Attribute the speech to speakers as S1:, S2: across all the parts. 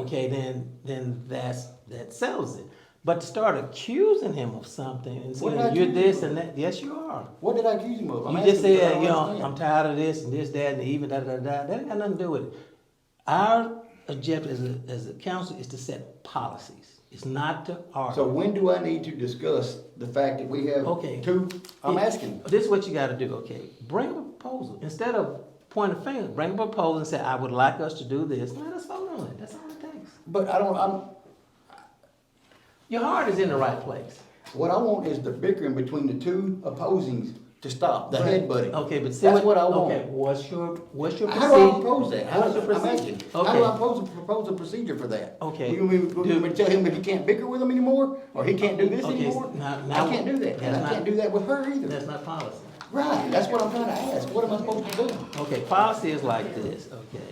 S1: okay, then, then that's, that settles it. But to start accusing him of something and
S2: What
S1: saying,
S2: did I
S1: you're
S2: accuse
S1: this
S2: him of?
S1: and that, yes, you are.
S2: What did I accuse him of? I'm
S1: You just
S2: asking because I
S1: said,
S2: don't
S1: you know,
S2: understand.
S1: I'm tired of this and this, that, and the even, da, da, da, da. That ain't got nothing to do with it. Our objective as a, as a council is to set policies. It's not to argue.
S2: So when do I need to discuss the fact that we have
S1: Okay.
S2: two, I'm
S1: It-
S2: asking,
S1: This is what you gotta do, okay? Bring a proposal. Instead of point a finger, bring a proposal and say, I would like us to do this. Let us vote on it. That's all it takes.
S2: but I don't, I'm,
S1: Your heart is in the right place.
S2: what I want is the bickering between the two opposings to stop, the headbutting.
S1: Okay, but see
S2: That's what I
S1: Okay,
S2: want.
S1: what's your, what's your
S2: How do I
S1: procedure?
S2: propose that? How
S1: What's
S2: do
S1: your
S2: I, I'm
S1: procedure?
S2: asking, how do I
S1: Okay,
S2: propose, propose a procedure for that?
S1: Okay.
S2: We gonna, we gonna- we gonna tell him that he can't bicker with him anymore, or he can't do this
S1: Okay,
S2: anymore?
S1: now-
S2: I
S1: now-
S2: can't do that,
S1: that's
S2: and I
S1: not-
S2: can't do that with her either.
S1: that's not policy.
S2: Right, that's what I'm trying to ask, what am I supposed to do?
S1: Okay, policy is like this, okay.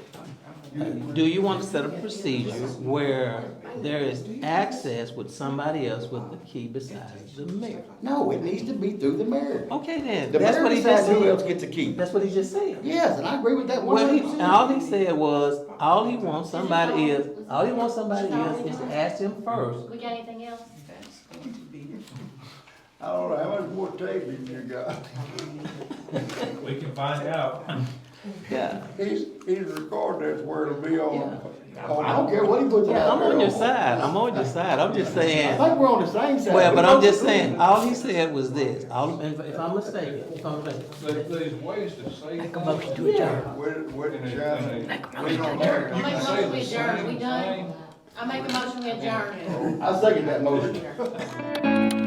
S1: Do you want to set a procedure where there is access with somebody else with the key besides the mayor?
S2: No, it needs to be through the mayor.
S1: Okay then,
S2: The
S1: that's
S2: mayor
S1: what he just
S2: decides who else
S1: said.
S2: gets a key.
S1: That's what he just said.
S2: Yes, and I agree with that one
S1: Well, he,
S2: hundred
S1: and
S2: percent.
S1: all he said was, all he wants somebody is, all he wants somebody is, is to ask him first.
S3: We got anything else?
S2: I don't know, how much more tape in there, guy?
S4: We can find out.
S1: Yeah.
S5: He's, he's recorded, that's where it'll be on.
S2: I don't care what he puts it
S1: Yeah,
S2: out
S1: I'm
S2: there
S1: on your side, I'm on your side, I'm just
S2: I
S1: saying,
S2: think we're on the same side.
S1: well,
S2: We
S1: but
S2: both
S1: I'm just
S2: agree.
S1: saying, all he said was this, all, if if I'm mistaken, if I'm
S5: There,
S1: mistaken.
S5: there's ways to say things.
S1: Yeah.
S5: With, with China, we don't
S3: I make a
S5: have.
S3: motion we adjourn, we
S5: Same
S3: done? I make a motion we adjourn.
S2: I second that motion.